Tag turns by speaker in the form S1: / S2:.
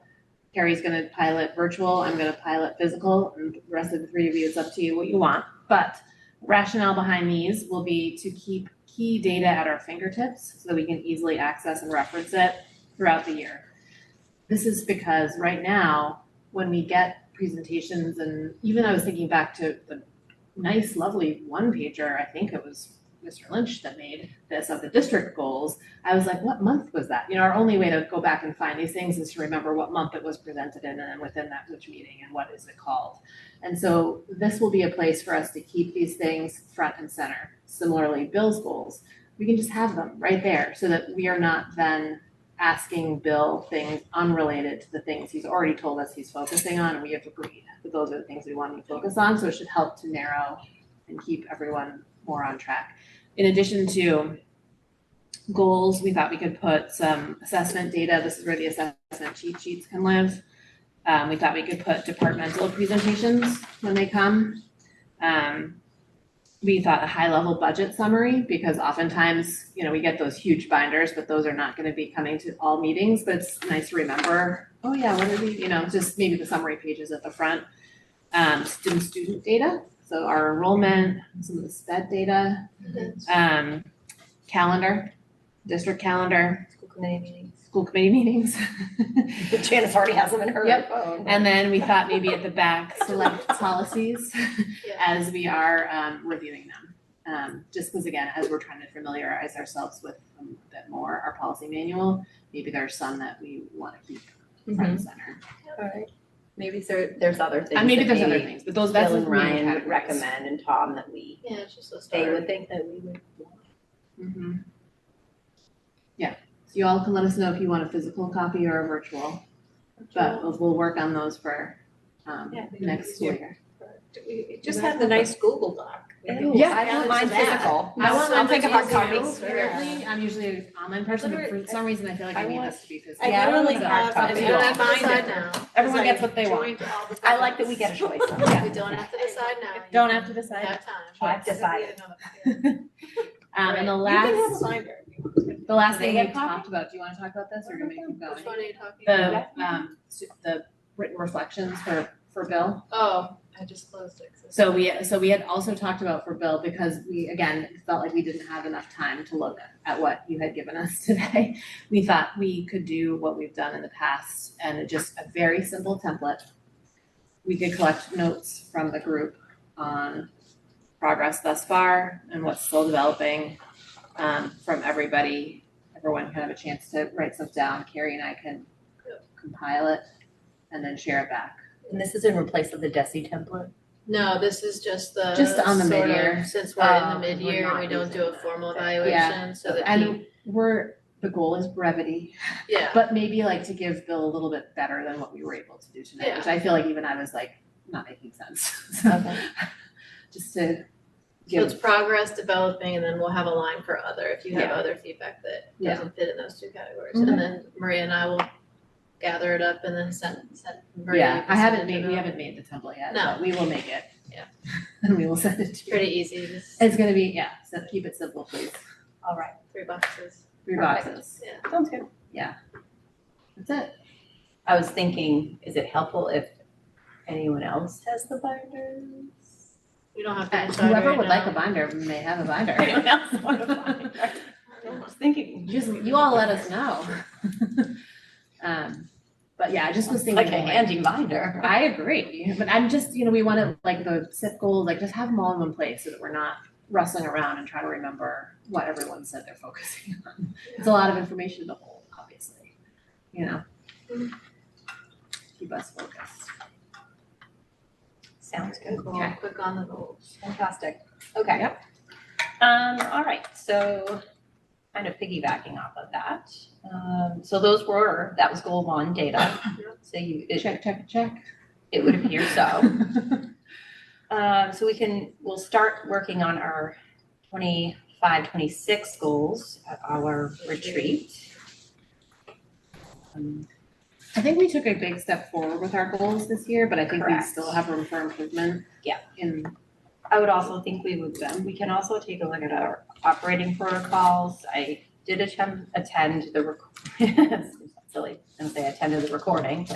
S1: Carrie's gonna pilot virtual, I'm gonna pilot physical, and the rest of the three of you, it's up to you what you want. But rationale behind these will be to keep key data at our fingertips so that we can easily access and reference it throughout the year. This is because right now, when we get presentations and even I was thinking back to the nice, lovely one pager, I think it was Mr. Lynch that made this of the district goals. I was like, what month was that? You know, our only way to go back and find these things is to remember what month it was presented in and then within that which meeting and what is it called. And so this will be a place for us to keep these things front and center. Similarly, Bill's goals, we can just have them right there so that we are not then asking Bill things unrelated to the things he's already told us he's focusing on and we have agreed that those are the things we want him to focus on. So it should help to narrow and keep everyone more on track. In addition to goals, we thought we could put some assessment data. This is where the assessment cheat sheets can live. Um, we thought we could put departmental presentations when they come. Um, we thought a high level budget summary because oftentimes, you know, we get those huge binders, but those are not going to be coming to all meetings. But it's nice to remember, oh yeah, what are we, you know, just maybe the summary pages at the front. Um, student student data, so our enrollment, some of the SPED data, um, calendar, district calendar,
S2: School committee meeting.
S1: school committee meetings.
S2: Janice already has them in her
S1: Yep.
S2: phone.
S1: And then we thought maybe at the back, select policies as we are um, reviewing them. Um, just because again, as we're trying to familiarize ourselves with a bit more our policy manual, maybe there are some that we want to keep front and center.
S2: Alright.
S3: Maybe there, there's other things.
S1: And maybe
S3: that
S1: there's other things, but those, that's
S3: Bill and
S1: the main
S3: Ryan would
S1: categories.
S3: recommend and Tom that we,
S2: Yeah, it's just a
S3: they would think that we would.
S1: Mhm. Yeah, so you all can let us know if you want a physical copy or a virtual, but we'll, we'll work on those for um,
S2: Yeah, we can
S1: next school
S2: do-
S1: year.
S2: Just have the nice Google Doc. We can-
S1: Yeah.
S3: I want mine physical.
S1: I want mine
S3: I'll take a hard
S1: physical
S3: copy.
S2: too.
S1: Apparently, I'm usually an online person, but for
S2: Literally,
S1: some reason, I feel like I
S2: I
S1: need
S2: want-
S1: this to be physical.
S2: I literally
S1: So-
S2: have, I
S3: copy.
S2: mean, I don't have to
S4: Mine
S2: decide
S4: is-
S2: now.
S1: Everyone
S2: Because
S1: gets
S2: I
S1: what they want.
S4: joined all the
S3: I like that we get a choice.
S2: We don't have to decide now. You
S1: Don't have to decide.
S2: Have time.
S3: I've decided.
S1: Um, and the
S2: You can have
S1: last,
S2: a binder. if you want.
S1: the last
S3: They
S1: thing
S3: have
S1: we
S3: coffee?
S1: talked about, do you wanna talk about this or do you want me to
S2: Which
S1: keep going?
S2: one are you talking about?
S1: The, um, su- the written reflections for, for Bill.
S2: Oh, I just closed it. 'cause it's-
S1: So we, uh, so we had also talked about for Bill because we, again, felt like we didn't have enough time to look at what you had given us today. We thought we could do what we've done in the past and it just a very simple template. We could collect notes from the group on progress thus far and what's still developing um, from everybody. Everyone can have a chance to write stuff down. Carrie and I can compile it and then share it back.
S3: And this is in replace of the Desi template?
S2: No, this is just the.
S1: Just on the
S2: sort of-
S1: mid-year.
S2: Since we're in
S3: Oh,
S2: the
S3: we're
S2: mid-year,
S3: not
S2: we don't do
S3: using
S2: a
S3: that.
S2: formal
S3: Yeah.
S2: evaluation, so that he,
S1: And we're, the goal is brevity.
S2: yeah,
S1: But maybe like to give Bill a little bit better than what we were able to do tonight, which I feel like even I was like, not making sense. So Just to
S2: so it's
S1: give,
S2: progress, developing, and then we'll have a line for other, if you have
S1: Yeah.
S2: other feedback that
S1: Yeah.
S2: doesn't fit in those two categories. And then Maria and I will gather it up and then send, send. Maria, you
S1: yeah,
S2: can
S1: I haven't
S2: send it
S1: made, we
S2: out.
S1: haven't made the template yet,
S2: No.
S1: but we will make it.
S2: Yeah.
S1: And we will send it
S2: It's
S1: to you.
S2: Pretty easy, just
S1: It's gonna be, yeah, so keep it simple, please.
S3: All right.
S2: three boxes.
S1: Three
S3: Perfect.
S1: boxes.
S3: Sounds good.
S1: That's it.
S3: I was thinking, is it helpful if anyone else has the binders?
S2: We don't have to
S1: And
S2: decide
S1: Whoever
S2: right
S1: would like
S2: now.
S1: a binder may have a binder.
S3: Anyone else want a binder? I was thinking.
S1: You Just, you all let us know. Um, but yeah, I just was thinking.
S3: Like a handy binder.
S1: I agree, but I'm just, you know, we want to, like, the SIP goals, like, just have them all in one place so that we're not rustling around and trying to remember what everyone said they're focusing on. It's a lot of information to hold, obviously, you know? Keep us focused.
S3: Sounds good.
S2: Cool, quick on the goals.
S3: Fantastic. Okay. Um, all right, so kind of piggybacking off of that. Um, so those were, that was goal one data. So you, it,
S1: Check, check, check.
S3: it would appear so. Um, so we can, we'll start working on our 25, 26 goals at our retreat. Um,
S1: I think we took a big step forward with our goals this year, but I think we
S3: Correct.
S1: still have room for improvement.
S3: Yeah.
S1: In
S3: I would also think we would, we can also take a look at our operating protocols. I did attend, attend the, rec- silly, I'm gonna say attended the recording,